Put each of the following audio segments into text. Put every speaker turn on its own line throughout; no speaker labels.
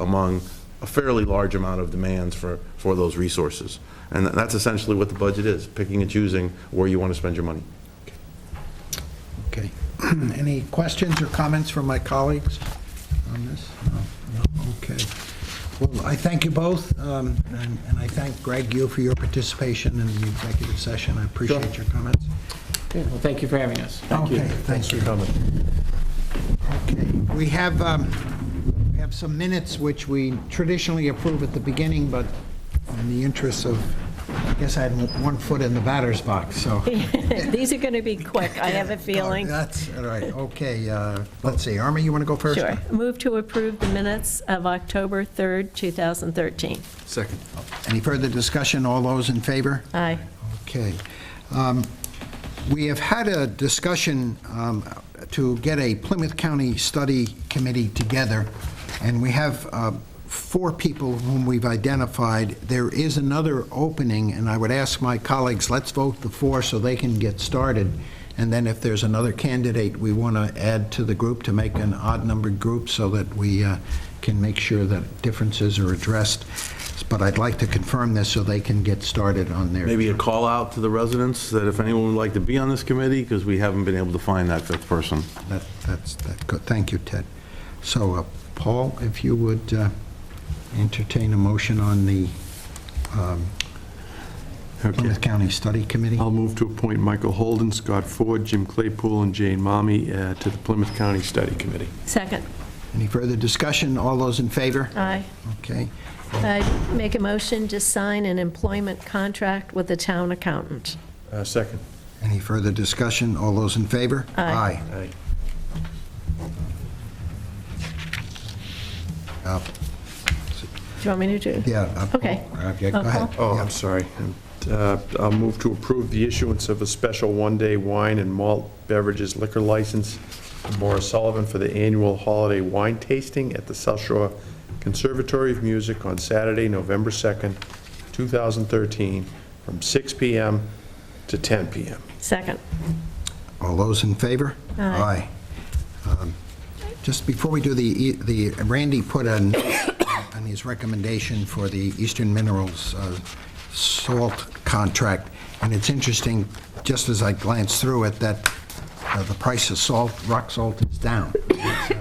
among a fairly large amount of demands for, for those resources. And that's essentially what the budget is, picking and choosing where you want to spend your money.
Okay. Any questions or comments from my colleagues on this? No. No? Okay. Well, I thank you both, um, and and I thank Greg, you for your participation in the executive session. I appreciate your comments.
Okay, Well, thank you for having us.
Okay, thank you. Okay. We have, um, we have some minutes which we traditionally approve at the beginning, but in the interest of, I guess I had one foot in the batter's box, so.
These are going to be quick, I have a feeling.
That's, all right, okay. uh, Let's see, Army, you want to go first?
Sure. Move to approve the minutes of October 3rd, 2013.
Second.
Any further discussion? All those in favor?
Aye.
Okay. Um, We have had a discussion um, to get a Plymouth County Study Committee together, and we have uh, four people whom we've identified. There is another opening, and I would ask my colleagues, let's vote the four so they can get started, and then if there's another candidate we want to add to the group to make an odd-numbered group so that we uh, can make sure that differences are addressed. But I'd like to confirm this so they can get started on their...
Maybe a call out to the residents that if anyone would like to be on this committee, because we haven't been able to find that fifth person.
That, that's, that, good. thank you, Ted. So, uh, Paul, if you would uh, entertain a motion on the um, Plymouth County Study Committee?
I'll move to appoint Michael Holden, Scott Ford, Jim Claypool, and Jane Mommy uh, to the Plymouth County Study Committee.
Second.
Any further discussion? All those in favor?
Aye.
Okay.
I make a motion to sign an employment contract with the town accountant.
Uh, Second.
Any further discussion? All those in favor?
Aye.
Aye.
Aye. Uh,
Do you want me to do?
Yeah. uh, Paul.
Okay.
Uh, yeah, Go
Uh,
ahead.
Oh,
Yeah.
I'm sorry. Uh, I'll move to approve the issuance of a special one-day wine and malt beverages liquor license to Morris Sullivan for the annual holiday wine tasting at the South Shore Conservatory of Music on Saturday, November 2nd, 2013, from 6 PM to 10 PM.
Second.
All those in favor?
Aye.
Aye. Um, Just before we do the, e- the Randy put on, on his recommendation for the Eastern Minerals uh, salt contract, and it's interesting, just as I glanced through it, that uh, the price of salt, rock salt is down. That's a-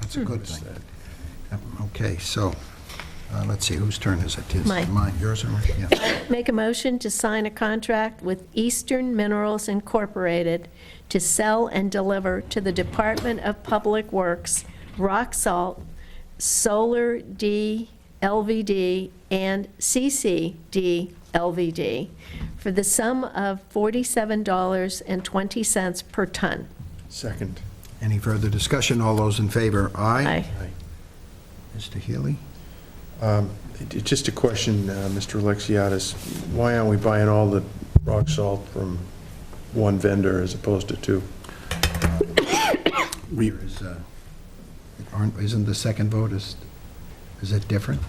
That's a good thing. Yep, Okay, so, uh, let's see, whose turn is it? Is it
Mine.
Mine, yours or mine? Yeah.
Make a motion to sign a contract with Eastern Minerals Incorporated to sell and deliver to the Department of Public Works rock salt, solar D LVD, and CCD LVD for the sum of $47.20 per ton.
Second.
Any further discussion? All those in favor?
Aye.
Mr. Healy?
It- Just a question, uh, Mr. Alexiadis, why aren't we buying all the rock salt from one vendor as opposed to two?
There is, uh, aren't- Isn't the second vote, is, is it different?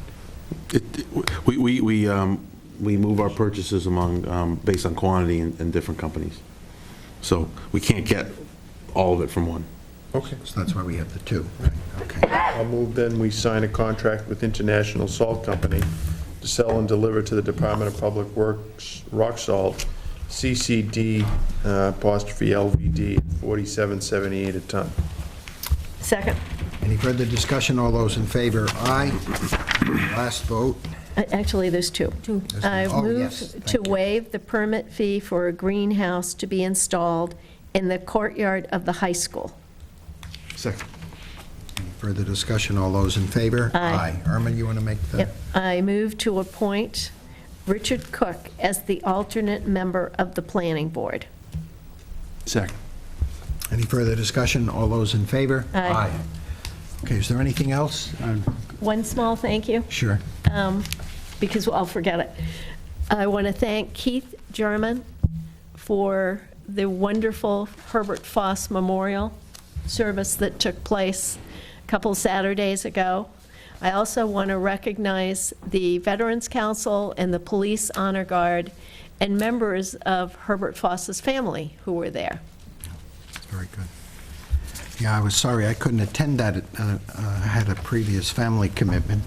We, we, we, um, we move our purchases among, um, based on quantity in, in different companies. So we can't get all of it from one.
Okay.
So that's why we have the two. right, Okay.
I'll move then, we sign a contract with International Salt Company to sell and deliver to the Department of Public Works rock salt, CCD uh, apostrophe LVD, 4778 a ton.
Second.
Any further discussion? All those in favor? Aye. Last vote.
Uh, Actually, there's two.
There's
I
two. Oh, yes,
move
thank
to
you.
waive the permit fee for a greenhouse to be installed in the courtyard of the high school.
Second.
Any Further discussion? All those in favor?
Aye.
Irma, you want to make the?
Yep. I move to appoint Richard Cook as the alternate member of the planning board.
Second.
Any further discussion? All those in favor?
Aye.
Okay, is there anything else? Uh,
One small thank you.
Sure.
um, because I'll forget it. I want to thank Keith German for the wonderful Herbert Foss Memorial service that took place a couple Saturdays ago. I also want to recognize the Veterans Council and the Police Honor Guard and members of Herbert Foss's family who were there.
Very good. Yeah, I was sorry I couldn't attend that. Uh, uh, I had a previous family commitment,